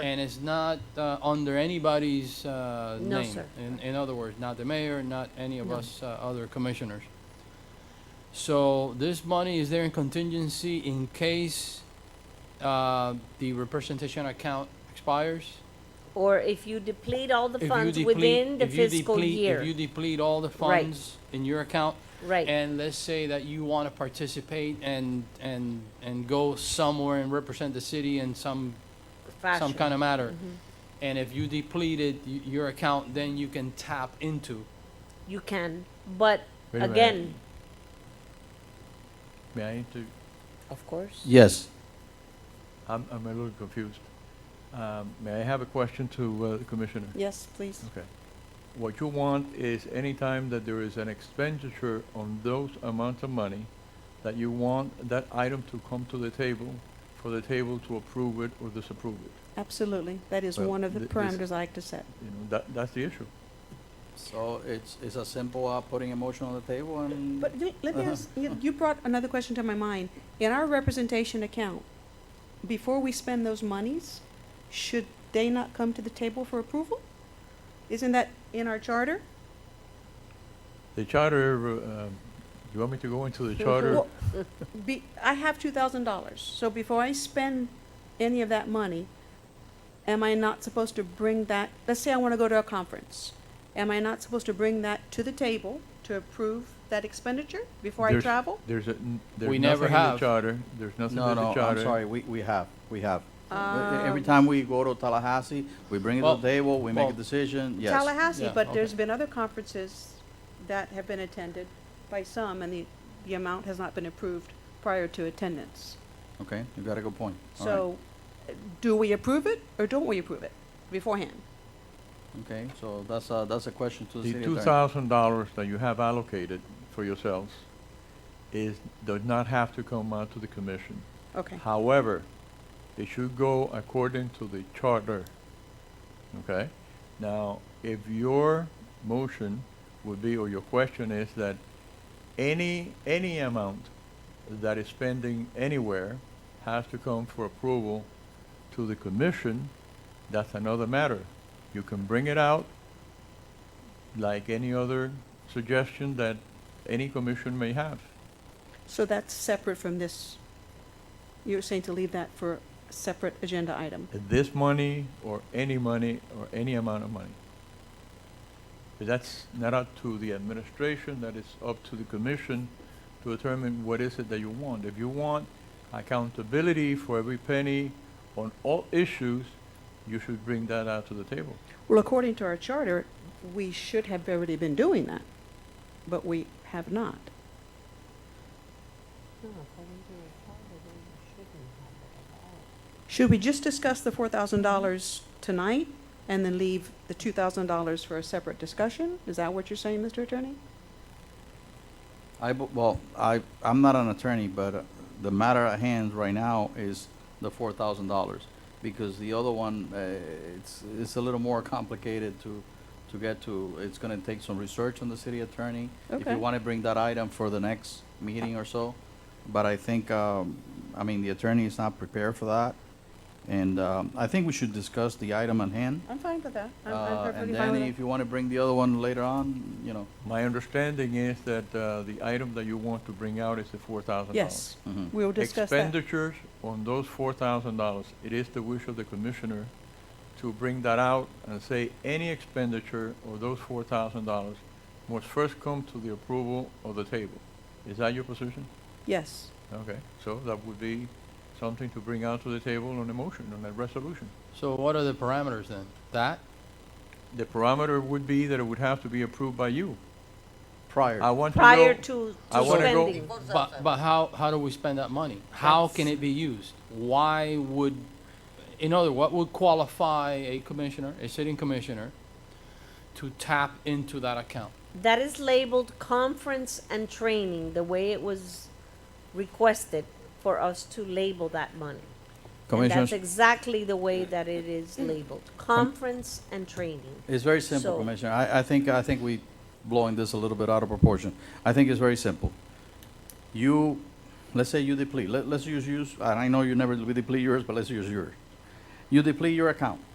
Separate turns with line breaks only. And it's not uh, under anybody's uh, name.
No, sir.
In, in other words, not the mayor, not any of
No.
us uh, other commissioners. So this money is there in contingency in case uh, the representation account expires?
Or if you deplete all the
If you
funds
deplete-
within the
if you
fiscal
deplete- If you
year,
deplete all the
Right.
funds in your account,
right,
and let's say that you want to participate and, and, and go somewhere and represent the city in some some
fashion. Mm-hmm.
kind of matter. And if you depleted y- your account, then you can tap into.
You can, but
Wait a minute.
again,
May I inter-
of course,
Yes.
I'm, I'm a little confused. Um, May I have a question to uh, the commissioner?
Yes, please.
Okay. What you want is anytime that there is an expenditure on those amounts of money, that you want that item to come to the table, for the table to approve it or disapprove it.
Absolutely. That is
Well,
one of the
th- this-
parameters I like to set.
You know, that, that's the issue.
So it's, it's as simple
uh,
as putting a motion on the table and,
But le- let me
Uh-huh.
ask, you you brought another question to my mind. In our representation account, before we spend those monies, should they not come to the table for approval? Isn't that in our charter?
The charter, uh, um, you want me to go into the charter?
Well, Be, I have two thousand dollars, so before I spend any of that money, am I not supposed to bring that, let's say I wanna go to a conference. Am I not supposed to bring that to the table to approve that expenditure before I
There's-
travel?
There's a, n- there's
We never
nothing in the
have.
charter, there's nothing
no,
in the
no,
charter.
I'm sorry, we, we have, we have. Uh, Every
Um,
time we go to Tallahassee, we bring it to
Well,
the table, we make
well,
a decision, yes.
Tallahassee,
yeah,
but
okay.
there's been other conferences that have been attended by some, and the, the amount has not been approved prior to attendance.
Okay, you got a good point. All right.
So, uh, do we approve it, or don't we approve it beforehand?
Okay, so that's a, that's a question to the
The
city
two
attorney.
thousand dollars that you have allocated for yourselves is, does not have to come out to the commission.
Okay,
However, it should go according to the charter. Okay? Now, if your motion would be, or your question is that any, any amount that is spending anywhere has to come for approval to the commission, that's another matter. You can bring it out like any other suggestion that any commission may have.
so that's separate from this, you're saying to leave that for a separate agenda item?
this money or any money or any amount of money. But that's not up to the administration, that is up to the commission to determine what is it that you want. If you want accountability for every penny on all issues, you should bring that out to the table.
Well, according to our charter, we should have already been doing that, but we have not. Should we just discuss the four thousand dollars tonight and then leave the two thousand dollars for a separate discussion? Is that what you're saying, Mr. Attorney?
I, bu- well, I, I'm not an attorney, but uh, the matter at hand right now is the four thousand dollars. Because the other one, uh, it's, it's a little more complicated to, to get to. It's gonna take some research on the city attorney. If
Okay.
you wanna bring that item for the next meeting or so. But I think, um, I mean, the attorney is not prepared for that. And, um, I think we should discuss the item at hand.
I'm fine with that. I'm- I'm
Uh,
perfectly
and
fine
then
with
if you wanna bring the other one later on, you know.
My understanding is that uh, the item that you want to bring out is the four thousand
that.
dollars.
Yes,
mhm.
we will discuss that.
expenditures on those four thousand dollars, it is the wish of the commissioner to bring that out and say any expenditure of those four thousand dollars must first come to the approval of the table. Is that your position?
Yes,
Okay, so that would be something to bring out to the table on a motion, on a resolution.
So what are the parameters then? That?
The parameter would be that it would have to be approved by you.
Prior.
I want to know.
prior to
I
to
wanna go-
spending.
But, but how, how do we spend that money? How can it be used? Why would, in other, what would qualify a commissioner, a sitting commissioner, to tap into that account?
That is labeled conference and training, the way it was requested for us to label that money. And that's
Commissioners,
exactly the way that it is labeled, conference and training.
It's very simple,
So-
Commissioner. I, I think, I think we blowing this a little bit out of proportion. I think it's very simple. You, let's say you deplete, let, let's use, use, and I know you never deplete yours, but let's use yours. You deplete your account.